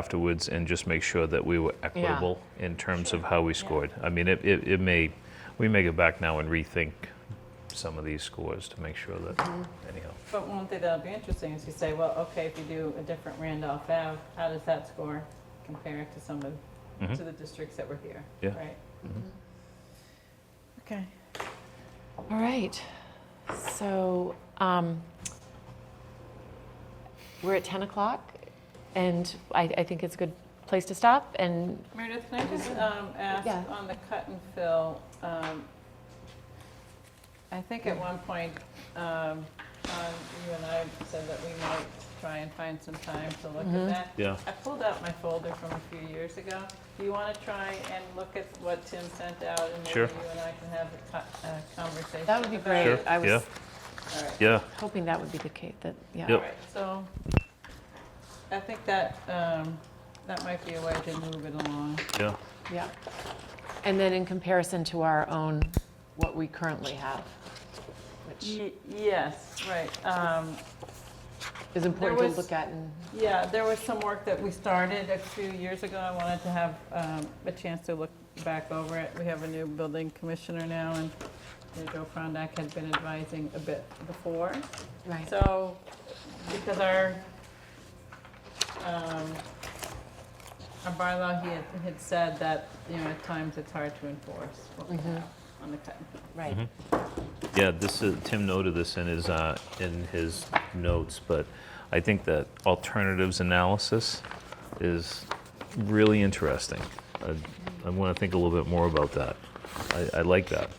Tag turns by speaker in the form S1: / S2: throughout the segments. S1: afterwards and just make sure that we were equitable in terms of how we scored. I mean, it, it, it may, we may go back now and rethink some of these scores to make sure that, anyhow.
S2: But one thing that'll be interesting is you say, well, okay, if you do a different Randolph Ave, how does that score compare to some of,
S1: Mhm.
S2: to the districts that were here?
S1: Yeah.
S2: Right?
S1: Mhm.
S2: Okay.
S3: All right. So um, we're at 10 o'clock, and I, I think it's a good place to stop. And
S2: Meredith, can I just um, ask
S3: Yeah.
S2: on the cut and fill? um, I think at one point, um, Tom, you and I said that we might try and find some time to look at that.
S1: Yeah.
S2: I pulled out my folder from a few years ago. Do you want to try and look at what Tim sent out? And maybe
S1: Sure.
S2: you and I can have a co- a conversation
S3: that would be
S2: about
S3: great.
S1: Sure,
S2: it?
S3: I was
S1: yeah.
S2: All right.
S1: Yeah,
S3: hoping that would be the case. That yeah.
S2: All
S1: Yep.
S2: right, so I think that, um, that might be a way to move it along.
S1: yeah,
S3: Yeah. And then in comparison to our own, what we currently have, which
S2: Ye- Yes, right. Um,
S3: is important
S2: was-
S3: to look at. And
S2: Yeah, there was some work that we started a few years ago. I wanted to have um, a chance to look back over it. We have a new building commissioner now, and you know, Joe Frondak had been advising a bit before.
S3: right.
S2: So, because our, um, our bylaw, he had, had said that, you know, at times it's hard to enforce what we have on the cut. and fill.
S3: right.
S1: Mm-hmm. yeah, this is, Tim noted this in his, uh, in his notes, but I think that alternatives analysis is really interesting. I, I want to think a little bit more about that. I, I like that.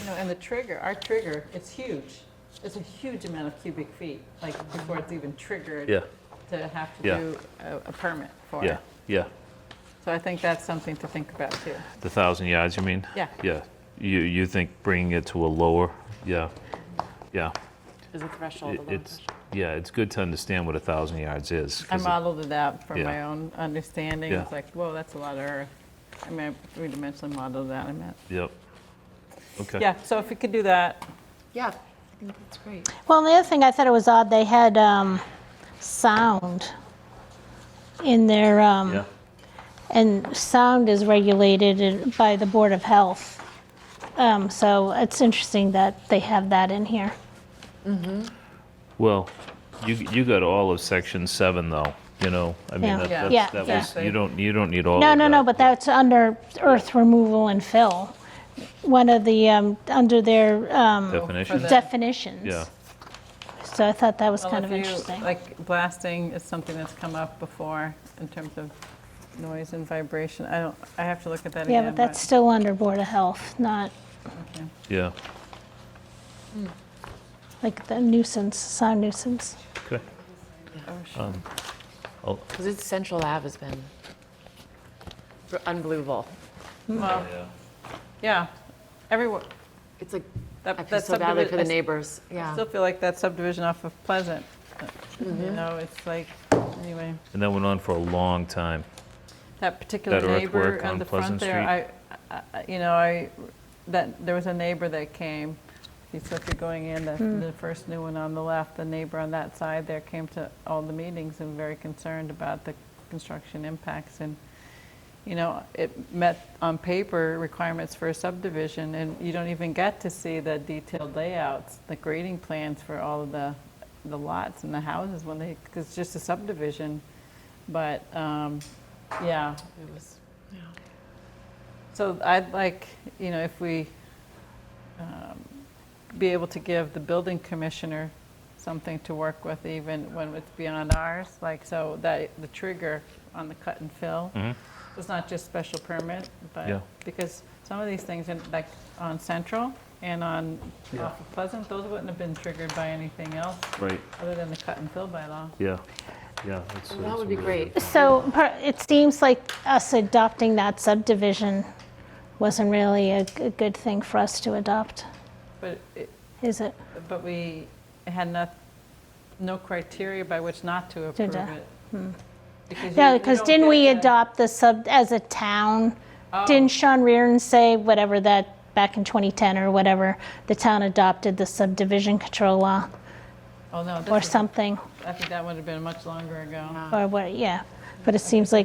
S2: You know, and the trigger, our trigger, it's huge. It's a huge amount of cubic feet, like before it's even triggered.
S1: Yeah,
S2: To have to
S1: Yeah.
S2: do a, a permit for it.
S1: yeah, yeah.
S2: So I think that's something to think about too.
S1: The thousand yards, you mean?
S2: Yeah.
S1: Yeah, you, you think bringing it to a lower, yeah, yeah.
S3: Is a threshold.
S1: It-
S3: a low
S1: It's, yeah, it's good to understand what a thousand yards is.
S2: I
S1: 'cause it-
S2: modeled it out from
S1: Yeah.
S2: my own understanding.
S1: Yeah.
S2: It's like, whoa, that's a lot of earth. I mean, I three-dimensionally modeled that, I meant.
S1: Yep. Okay.
S2: Yeah, so if we could do that,
S3: threshold. Yeah. I think that's great.
S4: Well, and the other thing I thought it was odd, they had um, sound in their, um,
S1: Yeah,
S4: and sound is regulated in- by the Board of Health. Um, So it's interesting that they have that in here.
S1: well, you, you got all of section seven though, you know, I mean,
S4: Yeah.
S1: that,
S2: Yeah.
S1: that's-
S4: Yeah,
S1: that was,
S2: yeah.
S1: you don't, you don't need all of
S4: No,
S1: that.
S4: no, no, but that's under earth removal and fill. One of the, um, under their um,
S1: Definition,
S2: the-
S4: definitions.
S1: yeah,
S4: So I thought that was
S2: well,
S4: kind of
S2: if you-
S4: interesting.
S2: Like blasting is something that's come up before in terms of noise and vibration. I don't, I have to look at that
S4: Yeah,
S2: again.
S4: but that's still under Board of Health, not
S1: yeah,
S4: like the nuisance, sound nuisance.
S1: okay.
S2: oh, sure.
S1: I'll-
S3: Because it's Central Ave has been br- unbelievable.
S2: Well, yeah, everyone,
S3: It's like I
S2: that
S3: feel
S2: that's
S3: so badly for the
S2: subdivision,
S3: neighbors.
S2: I
S3: Yeah. Mm-hmm.
S2: still feel like that subdivision off of Pleasant, uh, you know, it's like, anyway.
S1: And that went on for a long time.
S2: That particular
S1: That
S2: neighbor
S1: earthwork
S2: on
S1: on
S2: the front
S1: Pleasant
S2: there, I, I- you know, I, that, there was a neighbor that came. He said, if you're going in, the, the first new one on the left, the neighbor on that side there came to all the meetings and very concerned about the construction impacts. And, you know, it met on paper requirements for a subdivision and you don't even get to see the detailed layouts, the grading plans for all of the, the lots and the houses when they, because it's just a subdivision. But, um, yeah,
S3: It was.
S2: so I'd like, you know, if we um, be able to give the building commissioner something to work with even when it's beyond ours, like so that the trigger on the cut and fill was not just special permit,
S1: Yeah.
S2: but because some of these things, in- like on Central and on off of Pleasant, those wouldn't have been triggered by anything else
S1: Right,
S2: other than the cut and fill bylaw.
S1: yeah, yeah. that's-
S3: That
S1: that's
S3: would be
S1: really
S3: great.
S4: So per- it seems like us adopting that subdivision wasn't really a, g- a good thing for us to adopt,
S2: But it,
S4: is it?
S2: But we had not, no criteria by which not to approve
S4: Didn't, uh,
S2: it. Because you-
S4: Yeah,
S2: you
S4: because
S2: don't
S4: didn't
S2: get Oh.
S4: we
S2: the-
S4: adopt the sub, as a town? Didn't Sean Reardon say whatever that, back in 2010 or whatever, the town adopted the subdivision control law
S2: Oh, no,
S4: or
S2: this is,
S4: something?
S2: I think that would have been much longer ago.
S4: Or what, yeah. But it seems like